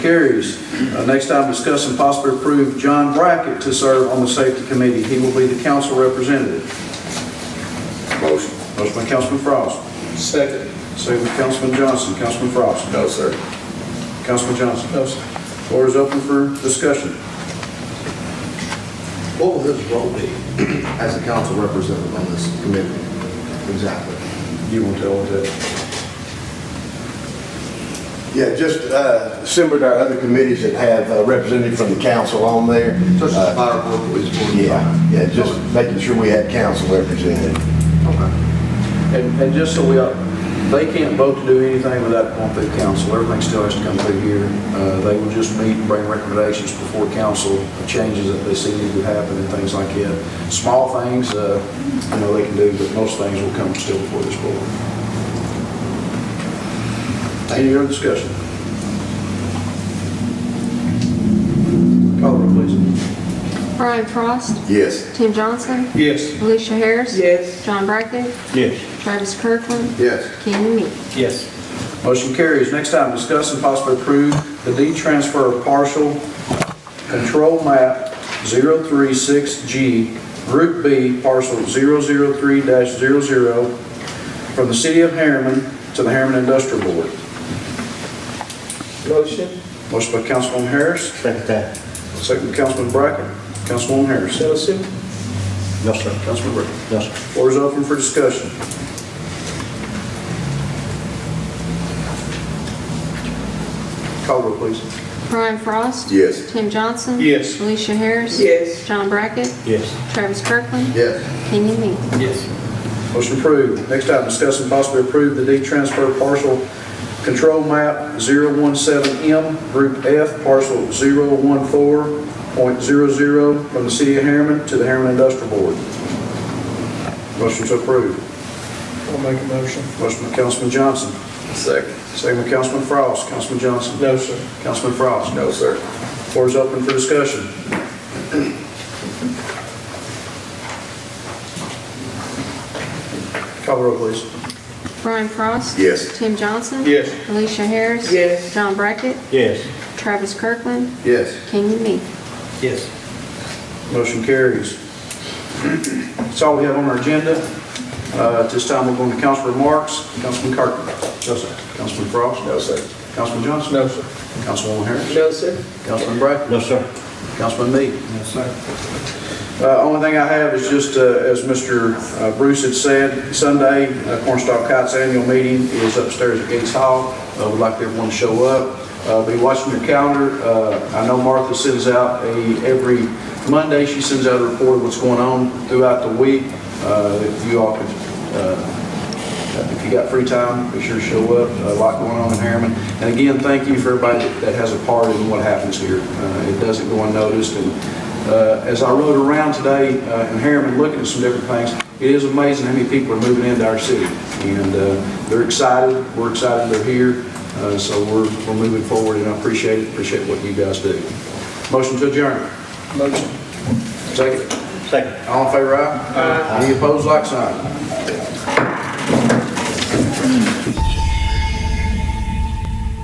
Carries. Uh, Next item, discuss and possibly approve John Brackett to serve on the safety committee. He will be the council representative. Motion. Motion by Councilman Frost, Second. second by Councilman Johnson. Councilman Frost. No, sir. Councilman Johnson. No, sir. Floor is open for discussion. What will his role be as a council representative on this committee? Exactly. You want to tell what that? Yeah, just uh, similar to our other committees that have a representative from the council on there. Such as Uh, fire board, police board. Yeah, yeah, just making sure we had council represented. Okay. And, and just so we, all- they can't vote to do anything without going through council. Everything still has to come through here. Uh, They will just meet and bring recommendations before council changes that they see need to happen and things like that. Small things, uh, you know, they can do, but most things will come still before this board. Any other discussion? Call the roll, please. Brian Frost. Yes. Tim Johnson. Yes. Alicia Harris. Yes. John Brackett. Yes. Travis Kirkland. Yes. Kenny Me. Yes. Motion carries. Next item, discuss and possibly approve the deed transfer of partial control map 036G, Group B, parcel 003-00, from the city of Harriman to the Harriman Industrial Board. Motion. Motion by Councilwoman Harris. Second that. Second by Councilman Brackett. Councilwoman Harris. No, sir. No, sir. Councilman Brackett. Yes, sir. Floor is open for discussion. Call roll, please. Brian Frost. Yes. Tim Johnson. Yes. Alicia Harris. Yes. John Brackett. Yes. Travis Kirkland. Yes. Kenny Me. Yes. Motion approved. Next item, discuss and possibly approve the deed transfer parcel control map 017M, Group F, parcel 014.00 from the city of Harriman to the Harriman Industrial Board. Motion to approve. I'll make a motion. Motion by Councilman Johnson, Second. second by Councilman Frost. Councilman Johnson. No, sir. Councilman Frost. No, sir. Floor is open for discussion. Call the roll, please. Brian Frost. Yes. Tim Johnson. Yes. Alicia Harris. Yes. John Brackett. Yes. Travis Kirkland. Yes. Kenny Me. Yes. Motion carries. That's all we have on our agenda. Uh, At this time, we're going to council remarks. Councilman Carter. No, sir. Councilman Frost. No, sir. Councilman Johnson. No, sir. Councilwoman Harris. No, sir. Councilman Bratton. No, sir. Councilman Meade? Yes, sir. Only thing I have is just, uh, as Mr. uh, Bruce had said, Sunday, uh, Cornstalk Kite's annual meeting is upstairs at Gates Hall. Uh, We'd like everyone to show up. Uh, Be watching your calendar. Uh, I know Martha sends out a, every Monday, she sends out a report of what's going on throughout the week. Uh, If you all could uh, if you got free time, be sure to show up. A lot going on in Harriman. And again, thank you for everybody that- that has a part in what happens here. Uh, It doesn't go unnoticed. And uh, as I rode around today uh, in Harriman, looking at some different things, it is amazing how many people are moving into our city. And uh, they're excited, we're excited they're here, Uh, so we're we're moving forward, and I appreciate it, appreciate what you guys do. Motion to adjourn. Motion. Second. Second. All in favor, aye? Aye. Any opposed, like sign?